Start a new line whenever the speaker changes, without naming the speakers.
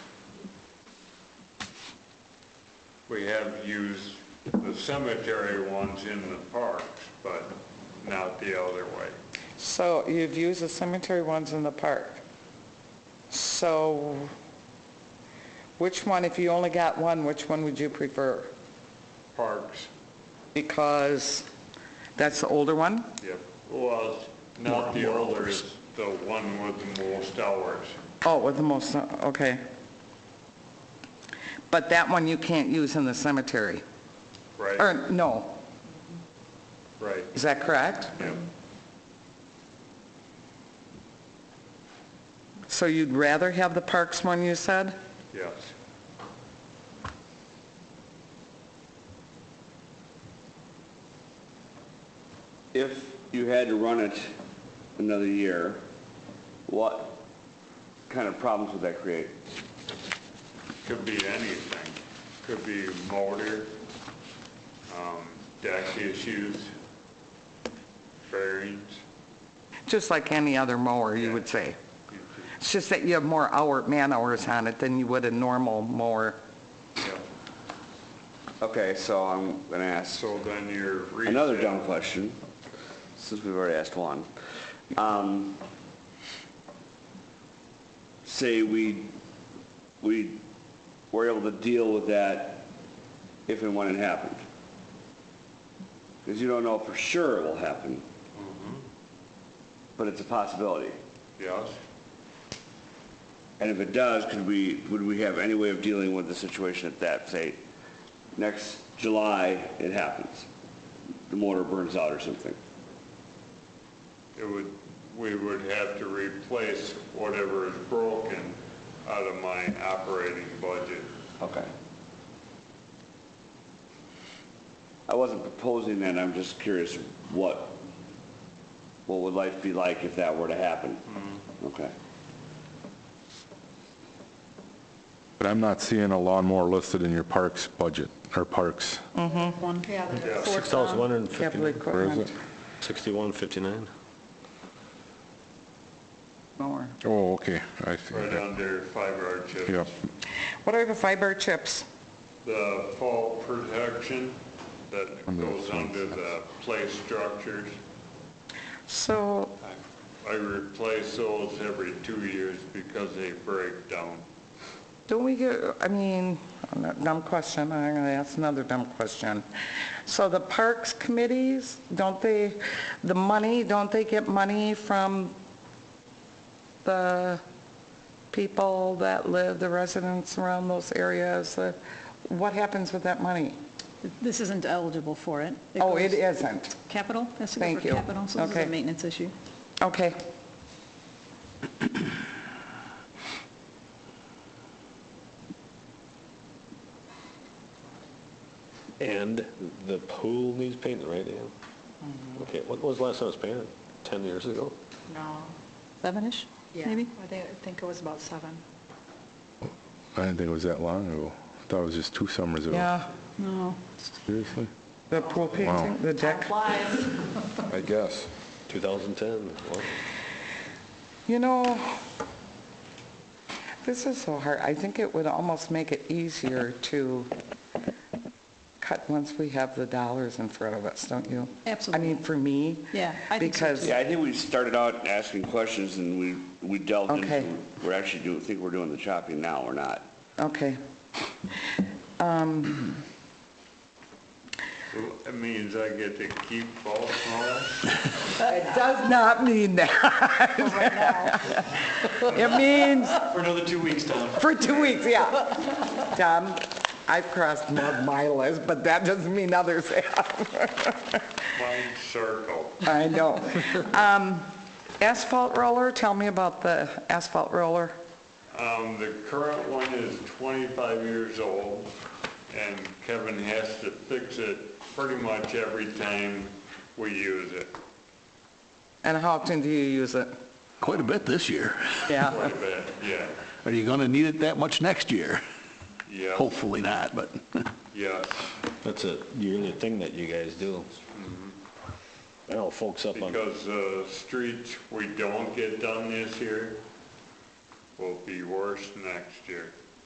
we have used the cemetery ones in the parks, but not the other way.
So you've used the cemetery ones in the park. So which one, if you only got one, which one would you prefer?
Parks,
Because that's the older one?
yep, well, not the older, it's the one with the most hours.
Oh, with the most, okay. But that one you can't use in the cemetery,
Right,
or, no,
right,
is that correct?
yep.
So you'd rather have the parks one, you said?
Yes.
If you had to run it another year, what kind of problems would that create?
Could be anything. Could be motor, um, deck issues, bearings.
Just like any other mower, you
Yeah.
would say. It's just that you have more hour, man-hours on it than you would a normal mower.
Yep.
Okay, so I'm going to ask
So then you're.
another
reset.
dumb question, since we've already asked one. Um, Say we, we were able to deal with that if and when it happened. Because you don't know for sure it will happen, but it's a possibility.
Yes.
And if it does, could we, would we have any way of dealing with the situation at that, say, next July, it happens? The motor burns out or something?
It would, we would have to replace whatever is broken out of my operating budget.
Okay. I wasn't proposing that, I'm just curious what, what would life be like if that were to happen? Okay.
But I'm not seeing a lawnmower listed in your parks budget, or parks.
One, yeah,
Yeah.
the
Six
fourth
thousand
one.
one hundred and
Capital
fifty,
Where is
equipment
it?
sixty-one fifty-nine.
mower.
Oh, okay, I see.
Right under fiber art chips.
Yep.
What are the fiber chips?
The fall protection that
Under
goes
the-
under the place structures.
So,
I replace those every two years because they break down.
don't we get, I mean, dumb question, I'm going to ask another dumb question. So the parks committees, don't they, the money, don't they get money from the people that live, the residents around those areas? Uh, What happens with that money?
This isn't eligible for it.
Oh, it
goes-
isn't.
Capital, has to go
Thank
for
you.
capital, so this is
Okay.
a maintenance issue.
Okay.
And the pool needs painting, right, Ann? Okay, when was the last time it was painted? Ten years ago?
No,
Seven-ish,
yeah,
maybe?
I think, I think it was about seven.
I didn't think it was that long ago. I thought it was just two summers ago.
Yeah,
No.
Seriously?
the pool painting, the deck.
Flies.
I guess.
Two thousand ten, well,
You know, this is so hard. I think it would almost make it easier to cut once we have the dollars in front of us, don't you? I
Absolutely.
mean, for me.
Yeah, I think so,
Because,
Yeah, I think we started out asking questions and we, we delved into.
Okay.
We're actually doing, think we're doing the chopping now, we're not.
okay,
It means I get to keep all snow.
it does not mean that.
Oh,
It means
For another two weeks, Tom.
for two weeks, yeah. Tom, I've crossed more of my list, but that doesn't mean others have.
Mine circle.
I know. Um, Asphalt roller, tell me about the asphalt roller.
Um, the current one is 25 years old, and Kevin has to fix it pretty much every time we use it,
And how often do you use it?
Quite a bit this year.
Yeah.
quite a bit, yeah.
Are you going to need it that much next year?
Yeah,
Hopefully not, but
yes,
that's a yearly thing that you guys do. Mm-hmm. I know folks up on,
because the streets we don't get done this year will be worse next year.